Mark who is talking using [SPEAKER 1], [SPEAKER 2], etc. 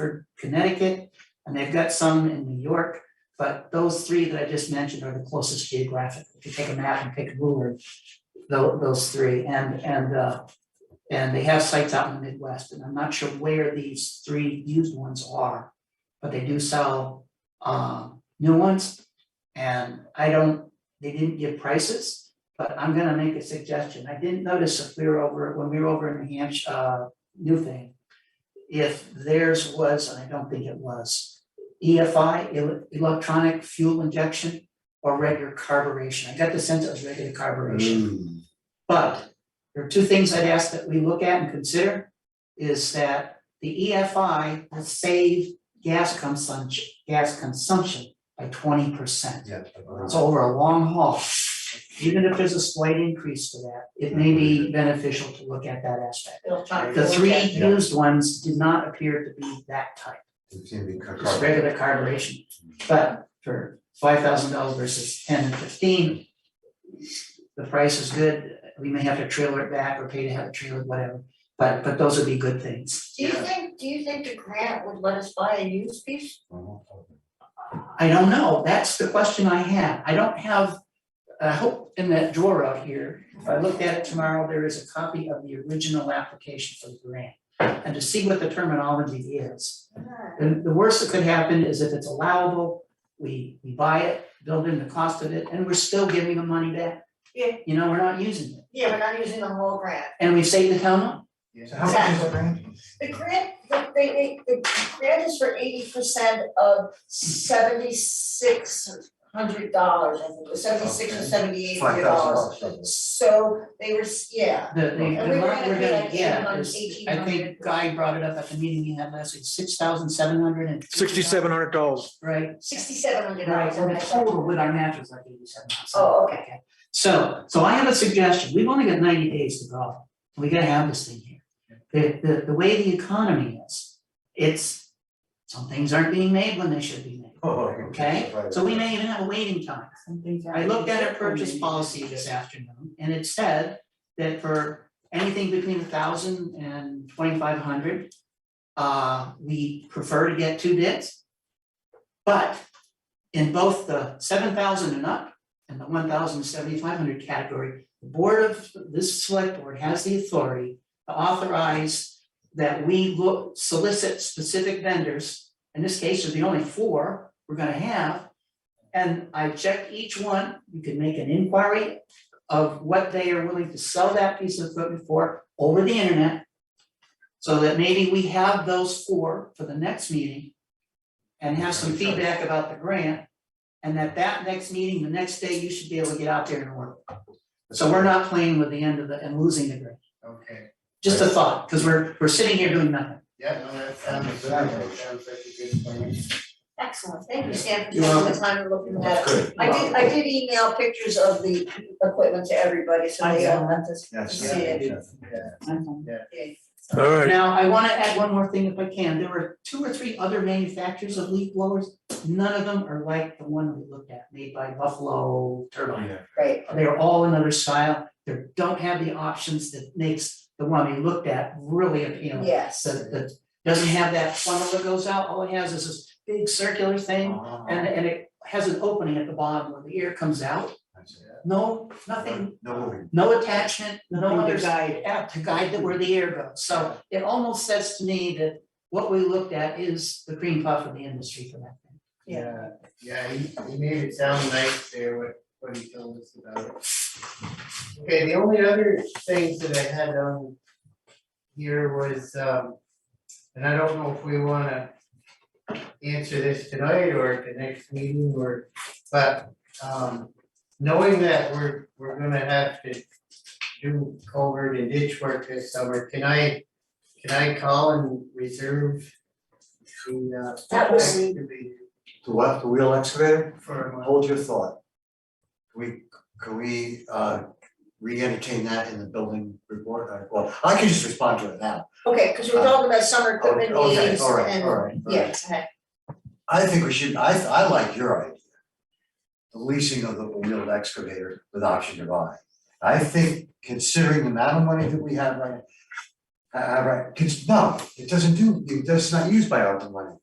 [SPEAKER 1] for Connecticut, and they've got some in New York. But those three that I just mentioned are the closest geographic. If you take a map and pick a ruler, tho- those three, and, and, uh, and they have sites out in the Midwest, and I'm not sure where these three used ones are, but they do sell, um, new ones. And I don't, they didn't give prices, but I'm gonna make a suggestion. I didn't notice if we were over, when we were over in New Hampshire, uh, New Thing, if theirs was, and I don't think it was, EFI, ele- electronic fuel injection or regular carburation. I got the sense it was regular carburation.
[SPEAKER 2] Mm,
[SPEAKER 1] But there are two things I'd ask that we look at and consider is that the E EFI will save gas consumption, gas consumption by twenty percent.
[SPEAKER 2] yeah.
[SPEAKER 1] It's over a long haul. Even if there's a slight increase to that, it may be beneficial to look at that aspect.
[SPEAKER 3] electronic.
[SPEAKER 1] The three
[SPEAKER 3] format.
[SPEAKER 2] Yeah.
[SPEAKER 1] used ones did not appear to be that type,
[SPEAKER 2] It can be cut.
[SPEAKER 1] just regular carburation. But for five thousand dollars versus ten and fifteen, the price is good, we may have to trailer it back or pay to have it trailered, whatever, but, but those would be good things.
[SPEAKER 3] Do you think, do you think the grant would let us buy a used piece?
[SPEAKER 1] I don't know, that's the question I have, I don't have, I hope in that drawer out here, if I looked at it tomorrow, there is a copy of the original application for the grant. And to see what the terminology is, And the worst that could happen is if it's allowable, we, we buy it, build in the cost of it, and we're still giving the money back.
[SPEAKER 3] Yeah.
[SPEAKER 1] You know, we're not using it,
[SPEAKER 3] Yeah, we're not using the whole grant.
[SPEAKER 1] and we save the town money.
[SPEAKER 2] So how much is the grant?
[SPEAKER 3] The grant, the, they, they, the grant is for eighty percent of seventy-six hundred dollars, I think, it was seventy-six or
[SPEAKER 2] Okay.
[SPEAKER 3] seventy-eight
[SPEAKER 2] Five
[SPEAKER 3] hundred dollars.
[SPEAKER 2] thousand dollars.
[SPEAKER 3] So they were, s- yeah,
[SPEAKER 1] The, the,
[SPEAKER 3] And
[SPEAKER 1] the
[SPEAKER 3] we were
[SPEAKER 1] amount
[SPEAKER 3] gonna
[SPEAKER 1] we're
[SPEAKER 3] pay
[SPEAKER 1] gonna
[SPEAKER 3] like
[SPEAKER 1] get
[SPEAKER 3] 800,
[SPEAKER 1] is, I think
[SPEAKER 3] 1,800.
[SPEAKER 1] Guy brought it up at the meeting we had last week, six thousand seven hundred and.
[SPEAKER 4] Sixty-seven hundred dollars.
[SPEAKER 1] Right,
[SPEAKER 3] sixty-seven hundred
[SPEAKER 1] right,
[SPEAKER 3] dollars,
[SPEAKER 1] and the total with our mattress like eighty-seven thousand.
[SPEAKER 3] Oh, okay.
[SPEAKER 1] So, so I have a suggestion, we've only got ninety days to go, we gotta have this thing here. The, the, the way the economy is, it's, some things aren't being made when they should be made,
[SPEAKER 2] Oh,
[SPEAKER 1] okay? So we may even have a waiting time. I looked at our purchase policy this afternoon, and it said that for anything between a thousand and twenty-five hundred, uh, we prefer to get two bids. But in both the seven thousand and up and the one thousand seventy-five hundred category, the board of, this select board has the authority to authorize that we look, solicit specific vendors, in this case, there's the only four we're gonna have, and I checked each one, you can make an inquiry of what they are willing to sell that piece of equipment for over the internet. So that maybe we have those four for the next meeting. And have some feedback about the grant. And at that next meeting, the next day, you should be able to get out there and order. So we're not playing with the end of the, and losing the grant.
[SPEAKER 5] Okay,
[SPEAKER 1] Just a thought, because we're, we're sitting here doing nothing.
[SPEAKER 5] yeah, no, that sounds, that sounds like a good plan.
[SPEAKER 3] Excellent, thank you, Stan, for
[SPEAKER 1] You're
[SPEAKER 3] taking the time and looking that up. I did, I did email pictures of the equipment to everybody, so they all have to see
[SPEAKER 2] Yes.
[SPEAKER 3] it.
[SPEAKER 4] All right,
[SPEAKER 1] Now, I wanna add one more thing if I can, there were two or three other manufacturers of leaf blowers, none of them are like the one we looked at, made by Buffalo Turbine.
[SPEAKER 3] Right,
[SPEAKER 1] They're all another style, they don't have the options that makes the one we looked at really appealing.
[SPEAKER 3] yes.
[SPEAKER 1] So that doesn't have that funnel that goes out, all it has is this big circular thing, and and it has an opening at the bottom where the air comes out, no, nothing,
[SPEAKER 2] No moving.
[SPEAKER 1] no attachment, no
[SPEAKER 6] Nothing
[SPEAKER 1] other
[SPEAKER 6] to guide.
[SPEAKER 1] out to guide that where the air goes, so it almost says to me that what we looked at is the cream puff of the industry for that thing.
[SPEAKER 5] Yeah, yeah, he, he made it sound nice there, what, what he told us about it. Okay, the only other things that I had on here was, um, and I don't know if we wanna answer this tonight or at the next meeting or, but, um, knowing that we're, we're gonna have to do culvert and ditch work this summer, can I, can I call and reserve the, uh,
[SPEAKER 3] That was-
[SPEAKER 5] excavator?
[SPEAKER 2] To what, the wheel excavator?
[SPEAKER 5] for a month.
[SPEAKER 2] Hold your thought. Can we, can we, uh, re-entertain that in the building report? Uh, Well, I can just respond to it now.
[SPEAKER 3] Okay, because we're talking about summer
[SPEAKER 2] Oh,
[SPEAKER 3] equipment
[SPEAKER 2] Okay,
[SPEAKER 3] needs
[SPEAKER 2] all right, all
[SPEAKER 3] and,
[SPEAKER 2] right. all right.
[SPEAKER 3] yeah, okay.
[SPEAKER 2] I think we should, I, I like your idea. The leasing of the wheeled excavator with option to buy. I think considering the amount of money that we have right now, Uh, right, 'cause no, it doesn't do, it- that's not used by ARPA money.